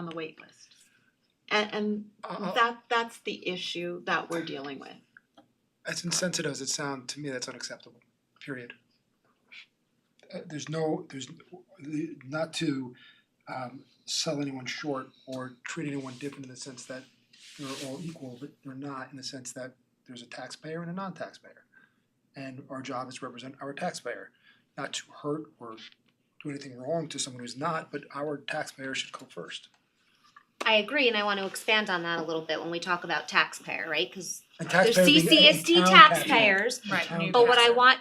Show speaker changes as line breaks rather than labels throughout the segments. on the wait list. And, and
Oh.
Uh,
that, that's the issue that we're dealing with.
As insensitive as it sounds, to me, that's unacceptable, period. Uh, there's no, there's, the- not to um sell anyone short or treat anyone different in the sense that they're all equal, but they're not in the sense that there's a taxpayer and a non-taxpayer. And our job is to represent our taxpayer, not to hurt or do anything wrong to someone who's not, but our taxpayer should go first.
I agree, and I want to expand on that a little bit when we talk about taxpayer, right? Because
And
there's
taxpayer being any
CCSD
town tax-
taxpayers,
the
Right,
town
new
but what I
taxpayer.
want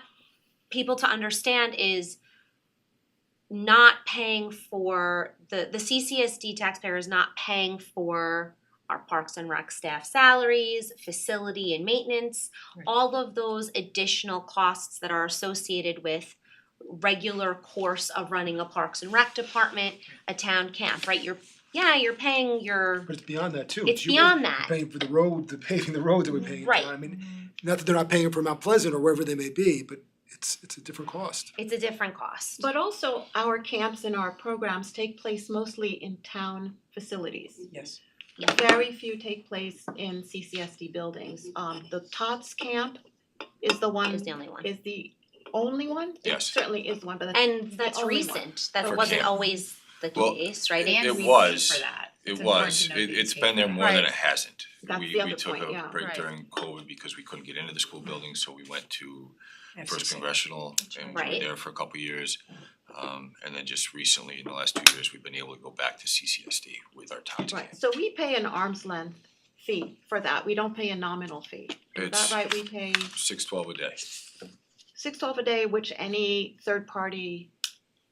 people to understand is not paying for the the CCSD taxpayer is not paying for our parks and rec staff salaries, facility and maintenance,
Right.
all of those additional costs that are associated with regular course of running a parks and rec department, a town camp, right? You're yeah, you're paying your
But it's beyond that too.
it's
you-
beyond that.
paying for the road, the paving the road that we're paying. for.
Right.
I mean, not that they're not paying for Mount Pleasant or wherever they may be, but it's it's a different cost.
It's a different cost.
But also, our camps and our programs take place mostly in town facilities.
yes.
Very few take place in CCSD buildings. Um, the Tots camp is the one,
is the only one.
is the only one? It
Yes.
Certainly is one, but that's
And that's
only one.
recent. That
For
wasn't
camp.
always the
Well,
case, right?
it
And we
was-
paid for that. It's
It
important
was,
to note
it
that you
it's
paid
been there
for
more
that.
than it hasn't.
That's
We
the other
we took
point, yeah.
a break
Right.
during COVID because we couldn't get into the school building, so we went to First
FCC.
Congressional and we
Right.
were there for a couple of years. Um and then just recently, in the last two years, we've been able to go back to CCSD with our town team.
Right, so we pay an arm's length fee for that, we don't pay a nominal fee. Is that
It's-
right, we pay
Six twelve a day.
six twelve a day, which any third party,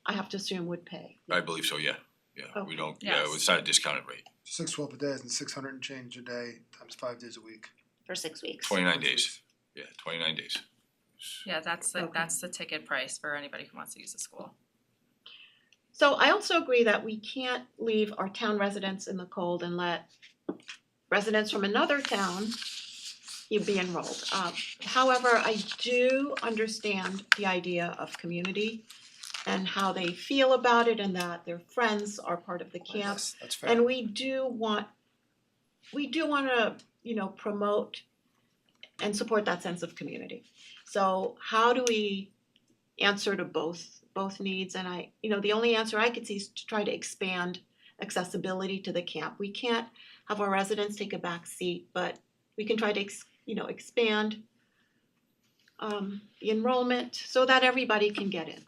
I have to assume would pay.
I believe so, yeah. Yeah,
Okay.
we don't, yeah,
Yes.
it's not a discounted rate.
Six twelve a day and six hundred and change a day times five days a week.
For six weeks.
Twenty nine days. Yeah, twenty nine days.
Yeah, that's the,
Okay.
that's the ticket price for anybody who wants to use the school.
So I also agree that we can't leave our town residents in the cold and let residents from another town you be enrolled. Uh, however, I do understand the idea of community and how they feel about it and that their friends are part of the camp.
Yes, that's fair.
And we do want, we do wanna, you know, promote and support that sense of community. So how do we answer to both, both needs? And I, you know, the only answer I could see is to try to expand accessibility to the camp. We can't have our residents take a back seat, but we can try to, ex- you know, expand um the enrollment so that everybody can get in.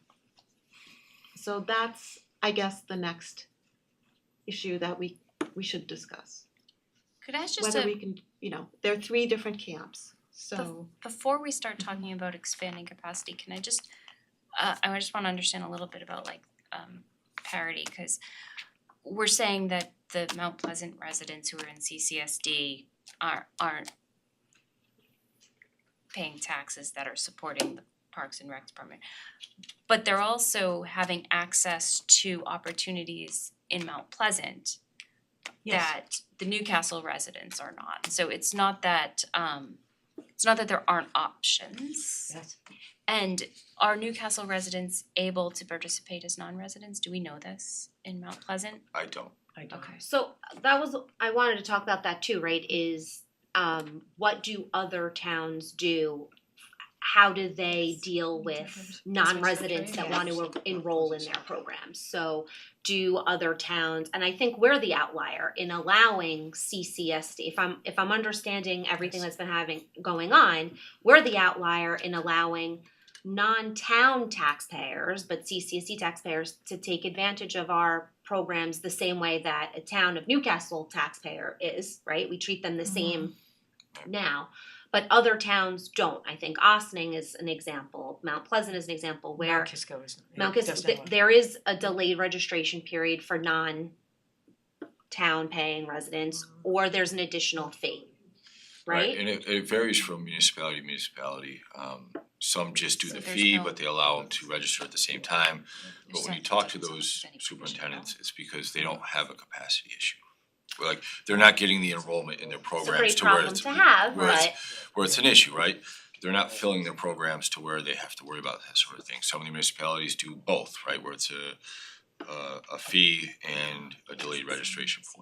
So that's, I guess, the next issue that we we should discuss.
Could I ask just
Whether
a,
we can, you know, there are three different camps, so
before we start
Mm-hmm.
talking about expanding capacity, can I just, uh, I just wanna understand a little bit about like, um, parity, cause we're saying that the Mount Pleasant residents who are in CCSD are, aren't paying taxes that are supporting the Parks and Rec Department. But they're also having access to opportunities in Mount Pleasant that the Newcastle residents are not. So it's not that um it's not that there aren't options.
Yes.
And are Newcastle residents able to participate as non-residents? Do we know this in Mount Pleasant?
I don't.
I don't.
Okay.
So that was, I wanted to talk about that too, right? Is um, what do other towns do? How do they deal with non-residents that want to enroll in their programs? So do other towns, and I think we're the outlier in allowing CCSD. If I'm if I'm understanding everything that's been having going on, we're the outlier in allowing non-town taxpayers, but CCSD E taxpayers to take advantage of our programs the same way that a town of Newcastle taxpayer is, right? We treat them the
Mm-hmm.
same now. But other towns don't. I think Austining is an example. Mount Pleasant is an example where
Mount Kisco is. it
Mount Kis-
doesn't
th-
have a-
there is a delayed registration period for non-town paying residents, or there's an additional fee, right?
Mm-hmm. And it it varies from municipality to municipality. Um some just do
So
the
there's
fee,
no-
but they allow them to register at the same time. But
There's
when you
no
talk to those
difference in any
superintendents, it's because they don't have a capacity issue. Like, they're not getting the enrollment in their
It's a great
programs to where
problem
it's,
to have,
where it's-
but
where it's an issue, right? They're not filling their programs to where they have to worry about that sort of thing. Some of the municipalities do both, right, where it's a uh, a fee and a delayed registration form.